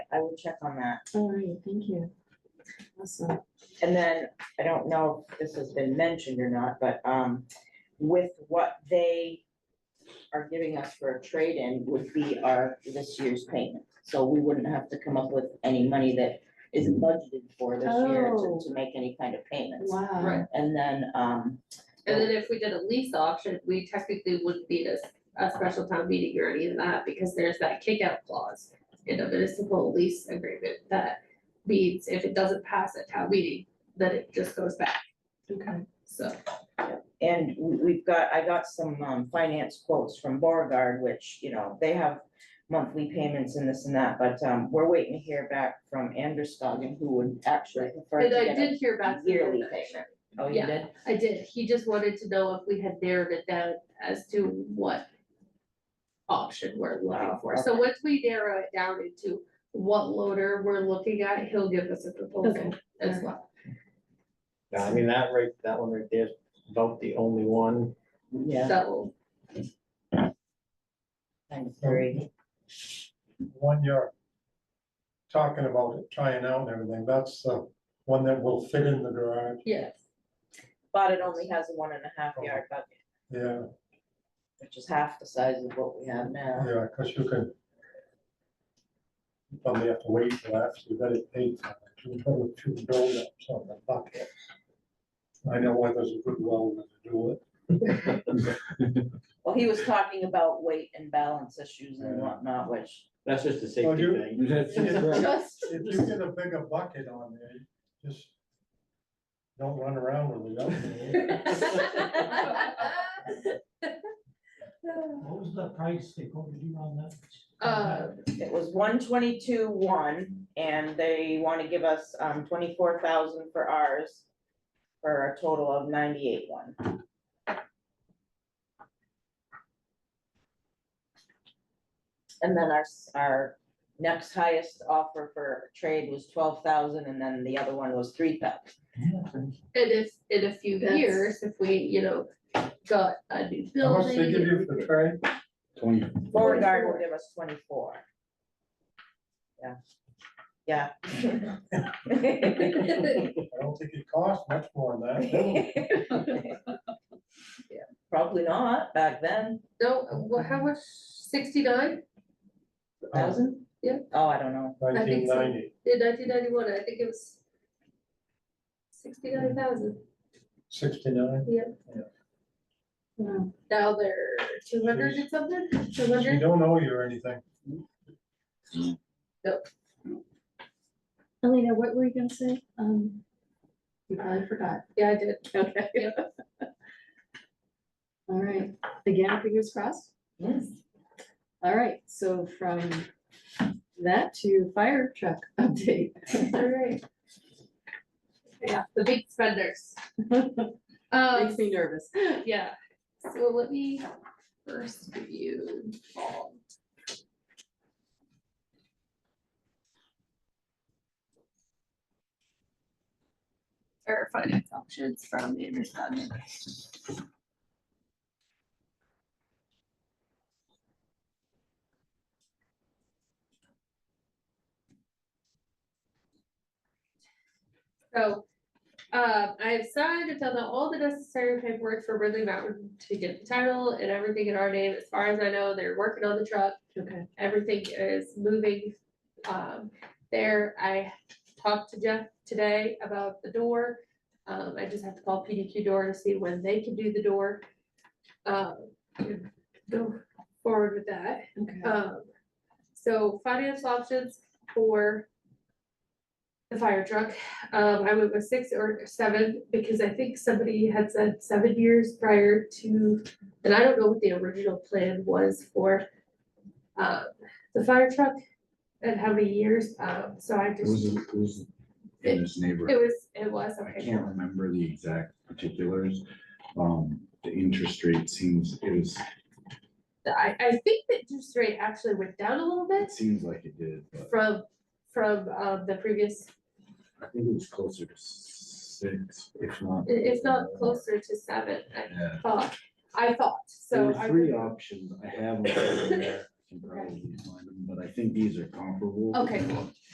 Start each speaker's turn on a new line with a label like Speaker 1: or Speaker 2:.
Speaker 1: I will check on that.
Speaker 2: All right, thank you. Awesome.
Speaker 1: And then, I don't know if this has been mentioned or not, but um, with what they are giving us for a trade-in would be our, this year's payment. So we wouldn't have to come up with any money that is budgeted for this year
Speaker 2: Oh.
Speaker 1: to, to make any kind of payments.
Speaker 2: Wow.
Speaker 3: Right.
Speaker 1: And then, um,
Speaker 3: And then if we did a lease auction, we technically wouldn't need a, a special town meeting or any of that, because there's that kickout clause in a municipal lease agreement that means if it doesn't pass at town meeting, then it just goes back,
Speaker 2: Okay.
Speaker 3: so.
Speaker 1: And we, we've got, I got some, um, finance quotes from Borgard, which, you know, they have monthly payments and this and that, but, um, we're waiting to hear back from Anderson, who would actually prefer to
Speaker 3: And
Speaker 1: get
Speaker 3: I
Speaker 1: a-
Speaker 3: did hear back. from him
Speaker 1: yearly
Speaker 3: that-
Speaker 1: payment. Oh, you
Speaker 3: yeah.
Speaker 1: did?
Speaker 3: I did, he just wanted to know if we had narrowed it down as to what option we're looking
Speaker 1: Wow,
Speaker 3: for, so
Speaker 1: okay.
Speaker 3: once we narrow it down into what loader we're looking at, he'll give us a proposal
Speaker 2: Okay.
Speaker 3: as well.
Speaker 4: Yeah, I mean, that right, that one right there is about the only one.
Speaker 1: Yeah,
Speaker 3: That will
Speaker 1: I'm sorry.
Speaker 5: one you're talking about, it trying out and everything, that's the one that will fit in the garage,
Speaker 3: Yes,
Speaker 1: But it only has a one and a half yard bucket,
Speaker 5: yeah,
Speaker 1: which is half the size of what we have now.
Speaker 5: yeah, cause you can. you Probably have to wait till after you got it paid for, it, to build, to build up on the bucket. I know why there's a good welder to do it,
Speaker 1: Well, he was talking about weight and balance issues and whatnot, which.
Speaker 4: That's just a
Speaker 5: Oh,
Speaker 4: safety thing.
Speaker 5: you-
Speaker 2: Just,
Speaker 5: if you get a bigger bucket on there, just don't run around with it. up there.
Speaker 6: What was the price they quoted you on that?
Speaker 3: Uh,
Speaker 1: It was one twenty-two, one, and they wanna give us, um, twenty-four thousand for ours. For a total of ninety-eight, one. And then our, s- our next highest offer for trade was twelve thousand, and then the other one was three thousand.
Speaker 3: and if, in a few
Speaker 2: That's-
Speaker 3: years, if we, you know, got a new
Speaker 5: How much they give you
Speaker 3: building.
Speaker 5: for the tray?
Speaker 7: Twenty,
Speaker 1: Beauregard will give us twenty-four. Yeah, yeah.
Speaker 5: I don't think it costs much more than that.
Speaker 1: Yeah, Probably not back then,
Speaker 3: No, what, how much, sixty-nine,
Speaker 1: thousand?
Speaker 3: Yeah.
Speaker 1: Oh, I don't know.
Speaker 3: I
Speaker 5: Nineteen
Speaker 3: think so.
Speaker 5: ninety.
Speaker 3: in nineteen ninety-one, I think it was sixty-nine thousand,
Speaker 5: Sixty-nine,
Speaker 2: wow.
Speaker 3: now they're two hundred and something, two
Speaker 5: you
Speaker 3: hundred,
Speaker 5: don't owe you anything,
Speaker 2: Elena, what were you gonna say? Um, you probably forgot.
Speaker 3: yeah, I did.
Speaker 2: Okay.
Speaker 3: Yep.
Speaker 2: All right, again, fingers crossed.
Speaker 1: Yes.
Speaker 2: All right, so from that to fire truck update.
Speaker 3: Alright. Yeah, the big spenders. Um,
Speaker 2: Makes me nervous.
Speaker 3: Yeah, so let me first give you all. Or finance options from Andrew's Dodge. So um, I have signed and filled out all the necessary paperwork for Ridley Mountain to get the title and everything in our name. As far as I know, they're working on the truck.
Speaker 2: Okay,
Speaker 3: Everything is moving. Um, there, I talked to Jeff today about the door. Um, I just have to call PDQ door to see when they can do the door. Um, and go forward with that.
Speaker 2: okay.
Speaker 3: Um, so finance options for the fire truck, um, I went with six or seven, because I think somebody had said seven years prior to, and I don't know what the original plan was for uh, the fire truck and how many years, um, so I
Speaker 7: it was,
Speaker 3: just,
Speaker 7: it was in this
Speaker 3: it
Speaker 7: neighborhood.
Speaker 3: was, it was,
Speaker 7: I
Speaker 3: okay.
Speaker 7: can't remember the exact particulars. Um, the interest rate seems, it was,
Speaker 3: I, I think that interest rate actually went down a little bit
Speaker 7: it seems like it did, but
Speaker 3: from, from, um, the previous
Speaker 7: I think it was closer to six, if not.
Speaker 3: It, it's not closer to seven, I
Speaker 7: Yeah.
Speaker 3: thought, Uh, I thought,
Speaker 7: There
Speaker 3: so.
Speaker 7: were
Speaker 3: I
Speaker 7: three
Speaker 3: would-
Speaker 7: options I have. on there. can probably find them, but I think these are comparable.
Speaker 3: Okay.